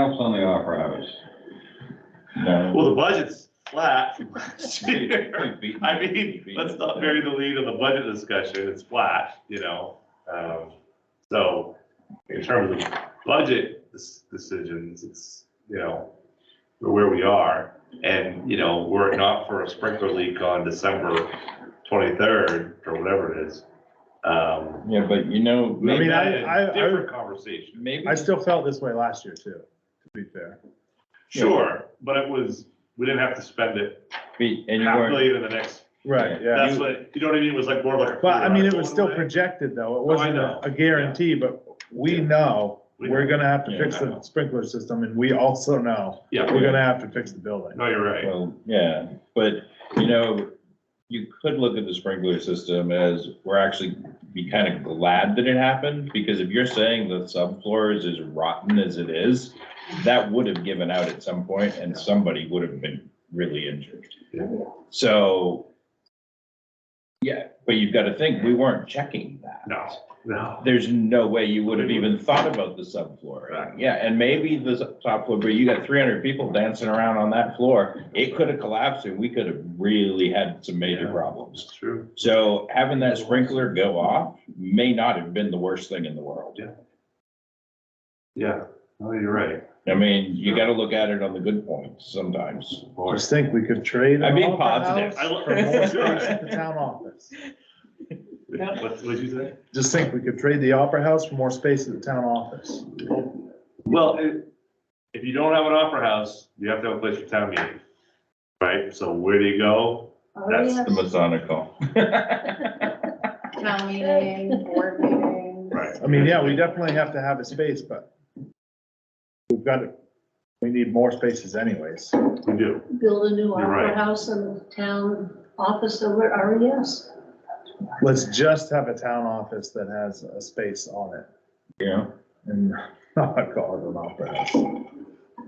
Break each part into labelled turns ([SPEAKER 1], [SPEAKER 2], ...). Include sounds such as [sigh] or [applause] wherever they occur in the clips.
[SPEAKER 1] else on the offer hours? [laughs]
[SPEAKER 2] Well, the budget's flat [laughs] from last year. [laughs] I
[SPEAKER 1] I
[SPEAKER 2] mean, let's not bury the lead on the budget discussion, it's flat, you know? Um, so in terms of budget dis- decisions, it's, you know, we're where we are. And, you know, were it not for a sprinkler leak on December twenty-third or whatever it is, um,
[SPEAKER 1] Yeah, but you know,
[SPEAKER 2] I mean,
[SPEAKER 1] maybe,
[SPEAKER 2] I,
[SPEAKER 3] I- I- I-
[SPEAKER 2] different conversation.
[SPEAKER 1] maybe,
[SPEAKER 3] I still felt this way last year too, to be fair.
[SPEAKER 2] Sure, but it was, we didn't have to spend it
[SPEAKER 1] be- and you
[SPEAKER 2] half
[SPEAKER 1] weren't,
[SPEAKER 2] million in the next
[SPEAKER 3] Right, yeah.
[SPEAKER 2] That's what, you know what I mean, it was like more like. a
[SPEAKER 3] But I mean, it was still
[SPEAKER 2] $4
[SPEAKER 3] projected though. It
[SPEAKER 2] Oh, I
[SPEAKER 3] wasn't
[SPEAKER 2] know.
[SPEAKER 3] a guarantee, but we
[SPEAKER 2] Yeah.
[SPEAKER 3] know
[SPEAKER 2] We
[SPEAKER 3] we're
[SPEAKER 2] know.
[SPEAKER 3] gonna have to
[SPEAKER 1] Yeah,
[SPEAKER 3] fix
[SPEAKER 2] I
[SPEAKER 3] the
[SPEAKER 2] know.
[SPEAKER 3] sprinkler system and we also know
[SPEAKER 2] Yeah,
[SPEAKER 3] we're gonna have to fix the building.
[SPEAKER 2] no, you're right,
[SPEAKER 1] well, yeah, but, you know, you could look at the sprinkler system as, we're actually be kind of glad that it happened, because if you're saying the subfloor is as rotten as it is, that would have given out at some point, and somebody would have been really injured.
[SPEAKER 2] Yeah.
[SPEAKER 1] So, yeah, but you've got to think, we weren't checking that.
[SPEAKER 2] no, no,
[SPEAKER 1] there's no way you would have even thought about the subfloor.
[SPEAKER 2] Right.
[SPEAKER 1] Yeah, and maybe the s- top floor, but you got three hundred people dancing around on that floor. It could have collapsed and we could have really had some major
[SPEAKER 2] Yeah.
[SPEAKER 1] problems.
[SPEAKER 2] it's true,
[SPEAKER 1] So having that sprinkler go off may not have been the worst thing in the world.
[SPEAKER 2] yeah, no, you're right.
[SPEAKER 1] I mean, you gotta look at it on the good points sometimes.
[SPEAKER 2] Boy.
[SPEAKER 3] Just think we could trade.
[SPEAKER 1] I'm being
[SPEAKER 3] all of our
[SPEAKER 1] positive.
[SPEAKER 3] house
[SPEAKER 2] I lo- [laughs]
[SPEAKER 3] For more space
[SPEAKER 2] Sure.
[SPEAKER 3] at the town office.
[SPEAKER 4] Yeah.
[SPEAKER 2] What, what'd you say?
[SPEAKER 3] Just think we could trade the opera house for more space at the town office.
[SPEAKER 2] Well, it- if you don't have an opera house, you have to have a place for town meeting, right? So where do you go?
[SPEAKER 5] Oh,
[SPEAKER 2] That's
[SPEAKER 1] The Masonic
[SPEAKER 2] [laughs]
[SPEAKER 1] call.
[SPEAKER 4] Town meeting, board meeting.
[SPEAKER 2] [laughs] Right.
[SPEAKER 3] I mean, yeah, we definitely have to have a space, but we've got to, we need more spaces anyways.
[SPEAKER 2] We do,
[SPEAKER 5] build a new
[SPEAKER 2] You're right.
[SPEAKER 5] opera house in the town office over at E RES.
[SPEAKER 3] Let's just have a town office that has a space on it
[SPEAKER 1] [laughs] Yeah,
[SPEAKER 3] and not call it an opera house.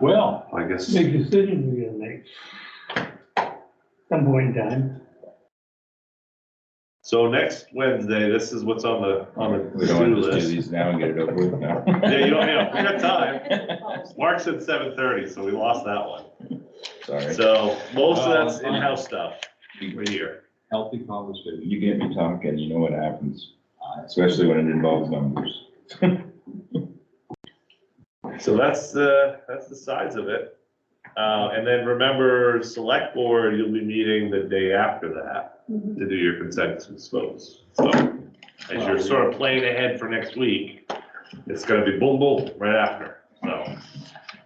[SPEAKER 2] well, I guess,
[SPEAKER 6] Big decision we're gonna make. Some point in time.
[SPEAKER 2] so next Wednesday, this is what's on the, on the
[SPEAKER 1] we don't
[SPEAKER 2] to-do
[SPEAKER 1] want to just do
[SPEAKER 2] list.
[SPEAKER 1] these now and get it over with now.
[SPEAKER 2] Yeah, you don't, you know, we got
[SPEAKER 5] [laughs]
[SPEAKER 2] time. Mark's at seven thirty, so we lost that one.
[SPEAKER 1] [laughs] Sorry,
[SPEAKER 2] So most of
[SPEAKER 1] Uh,
[SPEAKER 2] that's in-house stuff, we're here.
[SPEAKER 1] healthy conversation. You get me talking, you know what happens, especially when it involves numbers.
[SPEAKER 2] So that's the, that's the size of it. Uh, and then remember, select board, you'll be meeting the day after that
[SPEAKER 5] Mhm.
[SPEAKER 2] to do your consensus votes. So as you're sort of playing ahead for next week, it's gonna be boom, boom, right after, so.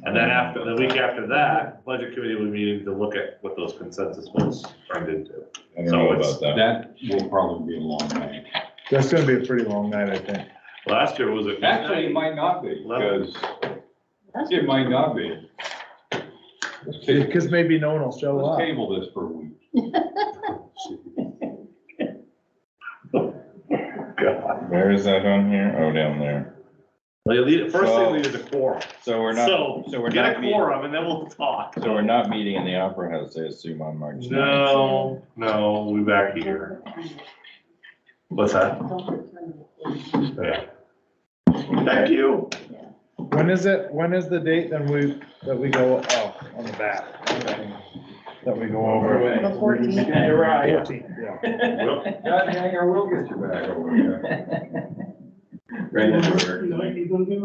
[SPEAKER 2] And then after, the week after that, budget committee will be meeting to look at what those consensus votes turned into.
[SPEAKER 1] I don't know
[SPEAKER 2] So it's-
[SPEAKER 1] about that.
[SPEAKER 7] That will probably be a long night.
[SPEAKER 3] That's gonna be a pretty long night, I think.
[SPEAKER 2] Last year was a.
[SPEAKER 7] Actually, it might not be, because it might not be. Let's ta-
[SPEAKER 3] Because maybe no one will show
[SPEAKER 7] let's
[SPEAKER 3] up.
[SPEAKER 7] table this for a week.
[SPEAKER 2] God.
[SPEAKER 1] Where is that on here? Oh, down there.
[SPEAKER 2] Like, lead- First
[SPEAKER 1] So-
[SPEAKER 2] thing, we need is a quorum.
[SPEAKER 1] So we're not,
[SPEAKER 2] So
[SPEAKER 1] so we're
[SPEAKER 2] get a
[SPEAKER 1] not meeting,
[SPEAKER 2] quorum and then we'll talk.
[SPEAKER 1] so we're not meeting in the Opera House, I assume, on March ninth.
[SPEAKER 2] No, no, we will be back here. What's that? Yeah. Thank you.
[SPEAKER 3] When is it, when is the date that we, that we go, oh, on the back? That we go over.
[SPEAKER 4] The fourteenth.
[SPEAKER 3] Fourteenth, yeah.
[SPEAKER 2] Well,
[SPEAKER 7] God dang, I will get you back over there.
[SPEAKER 1] [laughs]
[SPEAKER 6] You're gonna- you're gonna give